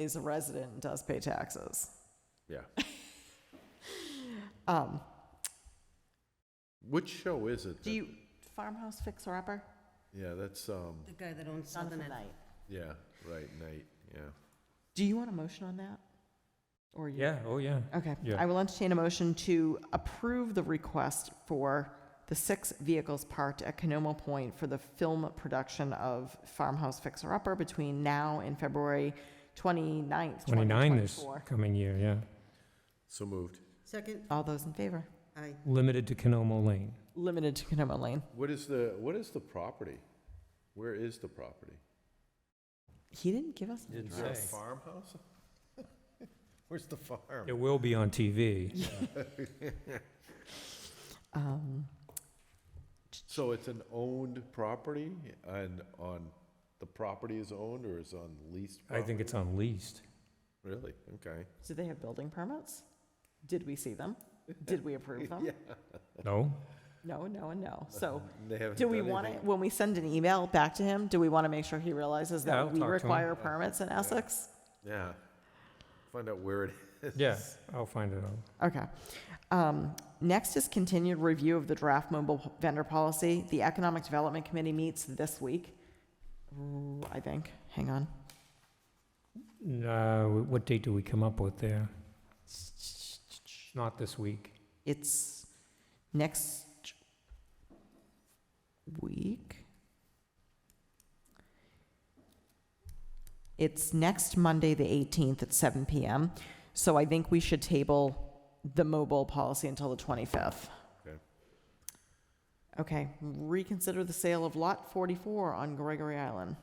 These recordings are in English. is a resident and does pay taxes. Yeah. Um, Which show is it? do that- you, farmhouse fixer upper? Yeah, that's, um, The guy that owns Southern Ed. yeah, right, Night, yeah. Do you want a motion on that? Or you? Yeah, oh, yeah. Okay, Yeah. I will entertain a motion to approve the request for the six vehicles parked at Canomo Point for the film production of Farmhouse Fixer Upper between now and February 29th, 29 this 2024. coming year, yeah. So moved. Second, All those in favor? aye. Limited to Canomo Lane. Limited to Canomo Lane. What is the, what is the property? Where is the property? He didn't give us. Didn't Is there a farmhouse? Where's the farm? It will be on TV. Um, So it's an owned property and on, the property is owned or is on leased I property? think it's on leased. Really? Okay. Do they have building permits? Did we see them? Did we approve them? No? No, no, and no. So They haven't do we done want to, anything. when we send an email back to him, do we want to make sure he realizes Yeah, I'll that we talk to him. require permits in Essex? Yeah. Find out where it is. Yeah, I'll find it out. Okay. Um, Next is continued review of the draft mobile vendor policy. The Economic Development Committee meets this week, Ooh, I think. Hang on. Uh, What date do we come up with there? Not this week. It's next week. It's next Monday, the 18th at 7 PM. So I think we should table the mobile policy until the 25th. Okay. Okay, reconsider the sale of Lot 44 on Gregory Island.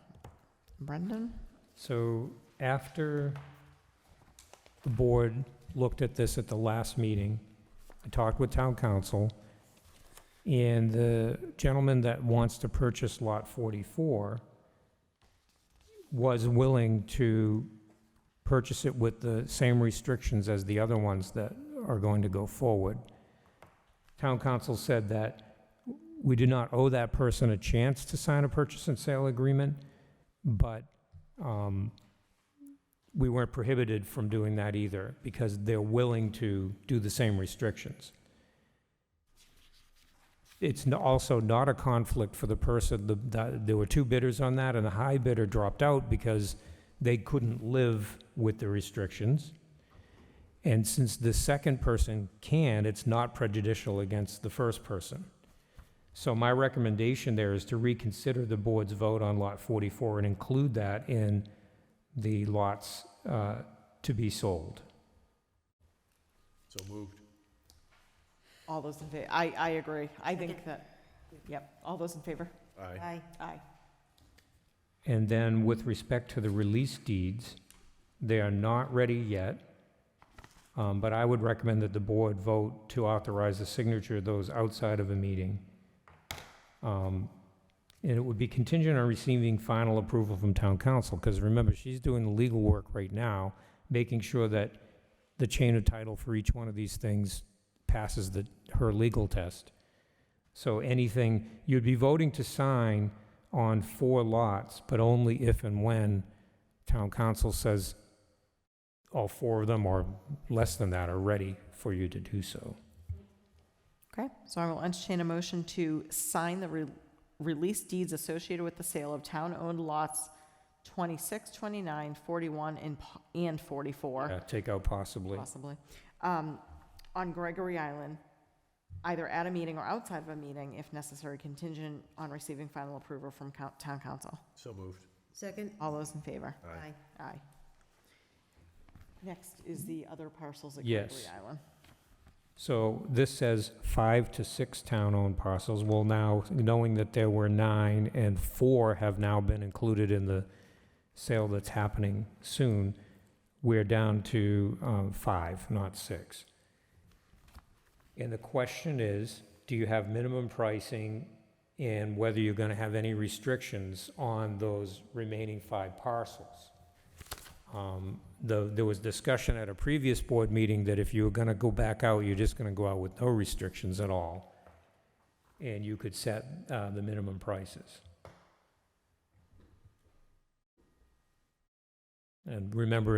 Brendan? So after the board looked at this at the last meeting, I talked with town council, and the gentleman that wants to purchase Lot 44 was willing to purchase it with the same restrictions as the other ones that are going to go forward. Town council said that we do not owe that person a chance to sign a purchase and sale agreement, but um, we weren't prohibited from doing that either, because they're willing to do the same restrictions. It's n- also not a conflict for the person, the- the- there were two bidders on that, and the high bidder dropped out because they couldn't live with the restrictions. And since the second person can, it's not prejudicial against the first person. So my recommendation there is to reconsider the board's vote on Lot 44 and include that in the lots uh, to be sold. So moved. All those in favor? I, I agree. I think that, yep, all those in favor? Aye. Aye. Aye. And then with respect to the release deeds, they are not ready yet, um, but I would recommend that the board vote to authorize the signature of those outside of a meeting. Um, And it would be contingent on receiving final approval from town council, because remember, she's doing the legal work right now, making sure that the chain of title for each one of these things passes the, her legal test. So anything, you'd be voting to sign on four lots, but only if and when town council says all four of them or less than that are ready for you to do so. Okay, so I will entertain a motion to sign the re- release deeds associated with the sale of town-owned lots 26, 29, 41, and, po- and 44, Uh, Take out possibly. possibly, um, on Gregory Island, either at a meeting or outside of a meeting, if necessary, contingent on receiving final approval from coun- town council. So moved. Second, All those in favor? Aye. aye. Aye. Next is the other parcels at Gregory Yes. Island. So this says five to six town-owned parcels. Well, now, knowing that there were nine and four have now been included in the sale that's happening soon, we're down to um, five, not six. And the question is, do you have minimum pricing and whether you're going to have any restrictions on those remaining five parcels? Um, the- There was discussion at a previous board meeting that if you were going to go back out, you're just going to go out with no restrictions at all, and you could set uh, the minimum prices. And remember,